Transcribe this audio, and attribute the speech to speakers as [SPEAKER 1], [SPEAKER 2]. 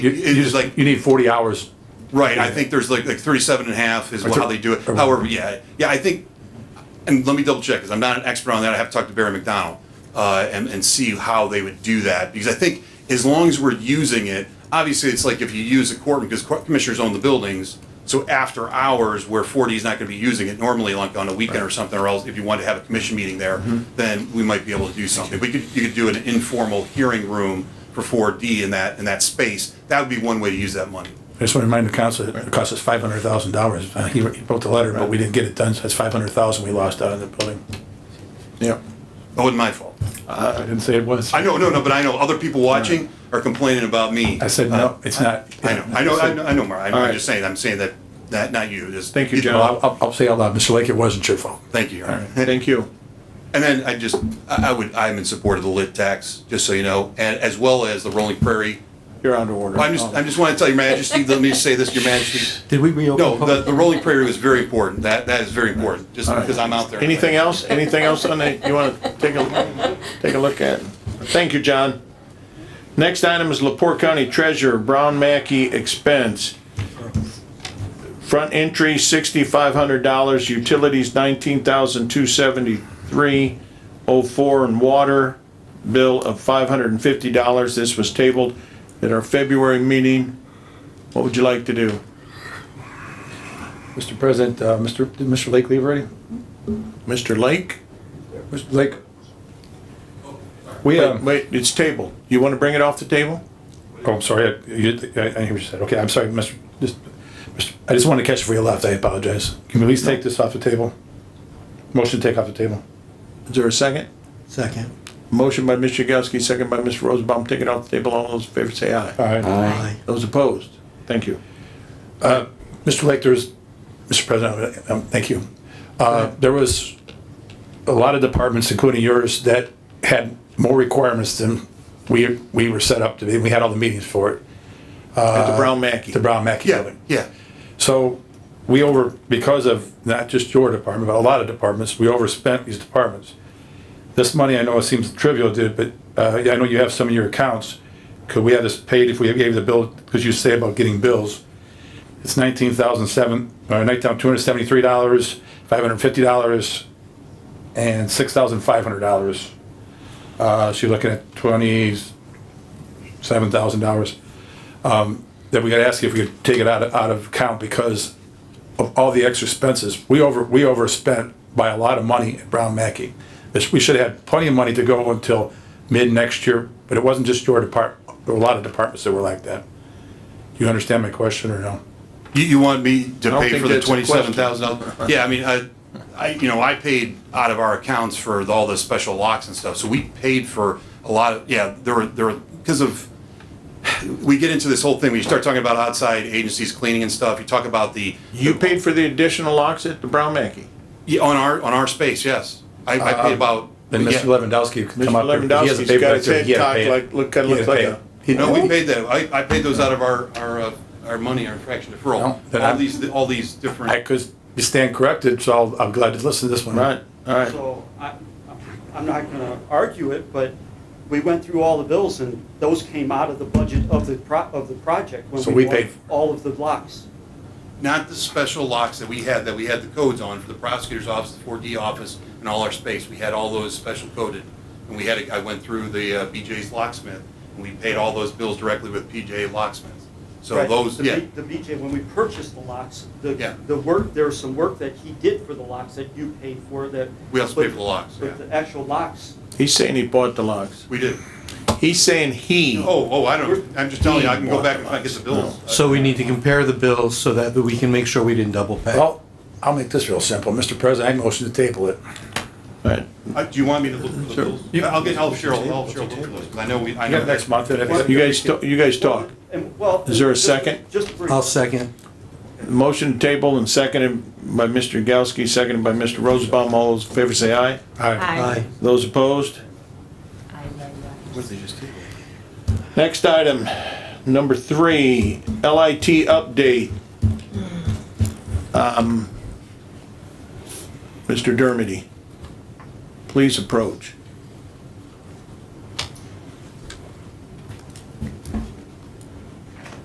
[SPEAKER 1] You,
[SPEAKER 2] It's
[SPEAKER 1] you just
[SPEAKER 2] like-
[SPEAKER 1] like, you need forty hours.
[SPEAKER 2] Right, I think there's like, like thirty-seven and a half is
[SPEAKER 1] Or
[SPEAKER 2] how
[SPEAKER 1] thir-
[SPEAKER 2] they do it,
[SPEAKER 1] or-
[SPEAKER 2] however, yeah, yeah, I think, and let me double check, because I'm not an expert on that, I have to talk to Barry McDonald, uh, and, and see how they would do that, because I think as long as we're using it, obviously, it's like if you use a courtroom, because court commissioners own the buildings, so after hours, where forty is not gonna be using it normally, like on a weekend or something, or else if you wanted to have a commission meeting there, then we might be able to do something, we could, you could do an informal hearing room for four D in that, in that space, that would be one way to use that money.
[SPEAKER 1] I just want to remind the council, it cost us five hundred thousand dollars. Uh, He he wrote the letter, but we didn't get it done, so that's five hundred thousand we lost out on the building.
[SPEAKER 3] Yeah,
[SPEAKER 2] Oh, it's my fault.
[SPEAKER 3] I didn't say it was.
[SPEAKER 2] Uh, I know, no, no, but I know other people watching are complaining about me.
[SPEAKER 1] I said, no, it's not.
[SPEAKER 2] Uh, I know, I know, I know, I know, Mark. I'm-
[SPEAKER 3] All
[SPEAKER 2] I'm
[SPEAKER 3] right.
[SPEAKER 2] just saying, I'm saying that, that, not you. Just-
[SPEAKER 3] Thank you,
[SPEAKER 1] Well,
[SPEAKER 3] John.
[SPEAKER 1] I'll- I'll, I'll say out loud, Mr. Lake, it wasn't your fault.
[SPEAKER 2] Thank you.
[SPEAKER 3] Thank you.
[SPEAKER 2] And then I just, I I would, I'm in support of the lit tax, just so you know, and as well as the Rolling Prairie.
[SPEAKER 3] You're under order.
[SPEAKER 2] I'm just, I'm just want to tell your majesty, let me just say this, your majesty.
[SPEAKER 4] Did we reopen?
[SPEAKER 2] No, the,
[SPEAKER 4] public-
[SPEAKER 2] the Rolling Prairie was very important. That, that is very important, just because I'm out there.
[SPEAKER 3] Anything else? Anything else on that you want to take a, take a look at? Thank you, John. Next item is Lepore County Treasurer Brown Mackey expense. Front entry sixty-five hundred dollars, utilities nineteen thousand two seventy-three oh four, and water bill of five hundred and fifty dollars. This was tabled at our February meeting. What would you like to do?
[SPEAKER 4] Mr. President, uh, Mr. Did Mr. Lake leave already?
[SPEAKER 3] Mr. Lake?
[SPEAKER 4] Mr. Lake? We,
[SPEAKER 3] Wait,
[SPEAKER 4] um,
[SPEAKER 3] wait, it's tabled. You want to bring it off the table?
[SPEAKER 1] Oh, I'm sorry, I, you, I, I hear what you said. Okay, I'm sorry, Mr. Just, Mr. I just wanted to catch it before you left. I apologize. Can we at least take this off the table? Motion to take off the table.
[SPEAKER 3] Is there a second?
[SPEAKER 4] Second.
[SPEAKER 3] Motion by Mr. Yagowski, second by Mr. Rosenbaum, take it off the table. All those in favor say aye.
[SPEAKER 1] All right.
[SPEAKER 4] Aye.
[SPEAKER 3] Those opposed? Thank you.
[SPEAKER 1] Mr. Lake, there's, Mr. President, um, thank you. Uh, There was a lot of departments, including yours, that had more requirements than we, we were set up to be. We had all the meetings for it,
[SPEAKER 3] At the Brown Mackey.
[SPEAKER 1] the Brown Mackey
[SPEAKER 2] Yeah,
[SPEAKER 1] building.
[SPEAKER 2] yeah.
[SPEAKER 1] So we over, because of not just your department, but a lot of departments, we overspent these departments. This money, I know it seems trivial, dude, but uh, I know you have some of your accounts. Could we have this paid if we gave the bill, because you say about getting bills? It's nineteen thousand seven, or nineteen, two hundred seventy-three dollars, five hundred fifty dollars, and six thousand five hundred dollars. Uh, so you're looking at twenty-seven thousand dollars that we gotta ask you if we could take it out of, out of account because of all the extra expenses. We over, we overspent by a lot of money at Brown Mackey. This, we should have had plenty of money to go until mid next year, but it wasn't just your depart, there were a lot of departments that were like that. You understand my question or no?
[SPEAKER 2] You, you want me to
[SPEAKER 3] don't
[SPEAKER 2] pay
[SPEAKER 3] think
[SPEAKER 2] for the
[SPEAKER 3] that's a
[SPEAKER 2] twenty-seven thousand dollars? Yeah, I mean, I, I, you know, I paid out of our accounts for the- all the special locks and stuff, so we paid for a lot of, yeah, there were, there were, because of, we get into this whole thing, when you start talking about outside agencies cleaning and stuff, you talk about the,
[SPEAKER 3] You paid for the additional locks at the Brown Mackey.
[SPEAKER 2] yeah, on our, on our space, yes. I, I paid about,
[SPEAKER 1] Then Uh, Mr.
[SPEAKER 2] yeah,
[SPEAKER 1] Lewandowski could come
[SPEAKER 3] Mr.
[SPEAKER 1] up here. because he has a
[SPEAKER 3] Lewandowski's
[SPEAKER 1] paper
[SPEAKER 3] got
[SPEAKER 1] right
[SPEAKER 3] his
[SPEAKER 1] there.
[SPEAKER 3] head
[SPEAKER 1] He had to
[SPEAKER 3] cocked
[SPEAKER 1] pay it.
[SPEAKER 3] like- look- kinda
[SPEAKER 1] He had
[SPEAKER 3] looks
[SPEAKER 1] to
[SPEAKER 3] like
[SPEAKER 1] pay
[SPEAKER 3] a-
[SPEAKER 1] it. He-
[SPEAKER 2] no, we paid that, I, I paid those out of our, our, uh, our money, our fraction deferral,
[SPEAKER 1] No, then
[SPEAKER 2] all
[SPEAKER 1] I'm-
[SPEAKER 2] these, all these
[SPEAKER 1] I
[SPEAKER 2] different,
[SPEAKER 1] could stand corrected, so I'll- I'm glad to listen to this one.
[SPEAKER 3] Right, all right.
[SPEAKER 5] So I, I'm not gonna argue it, but we went through all the bills and those came out of the budget of the pro, of the project. when
[SPEAKER 1] So we
[SPEAKER 5] bought
[SPEAKER 1] paid-
[SPEAKER 5] All of the blocks.
[SPEAKER 2] not the special locks that we had, that we had the codes on for the prosecutor's office, the 4D office, and all our space. We had all those special coded. And we had, a- I went through the uh, BJ's locksmith, and we paid all those bills directly with PJ locksmiths. So
[SPEAKER 5] Right.
[SPEAKER 2] those,
[SPEAKER 5] The
[SPEAKER 2] yeah,
[SPEAKER 5] B- The BJ, when we purchased the locks,
[SPEAKER 2] Yeah.
[SPEAKER 5] the, the work, there was some work that he did for the locks that you paid for that.
[SPEAKER 2] We also paid
[SPEAKER 5] but-
[SPEAKER 2] for the locks,
[SPEAKER 5] But
[SPEAKER 2] yeah.
[SPEAKER 5] the actual locks,
[SPEAKER 3] He's saying he bought the locks.
[SPEAKER 2] we did.
[SPEAKER 3] He's saying he.
[SPEAKER 2] Oh, oh, I don't, I'm just telling you, I can go back and I get the bills.
[SPEAKER 4] So we need to compare the bills so that we can make sure we didn't double pay.
[SPEAKER 1] Well, I'll make this real simple. Mr. President, I motion to table it.
[SPEAKER 3] All right.
[SPEAKER 2] Uh, Do you want me to look for the bills? I'll get, I'll Cheryl, I'll Cheryl look for those, 'cause I know we, I
[SPEAKER 1] I
[SPEAKER 2] know.
[SPEAKER 1] got next month. and if-
[SPEAKER 3] You guys, ta- you guys talk.
[SPEAKER 5] and well.
[SPEAKER 3] Is there a
[SPEAKER 5] just-
[SPEAKER 3] second?
[SPEAKER 5] Just brief.
[SPEAKER 4] I'll second.
[SPEAKER 3] Motion table and seconded by Mr. Yagowski, seconded by Mr. Rosenbaum. All those in favor say aye.
[SPEAKER 1] All right.
[SPEAKER 6] Aye.
[SPEAKER 3] Those opposed? Next item, number three, LIT update. Um, Mr. Dermody, please approach.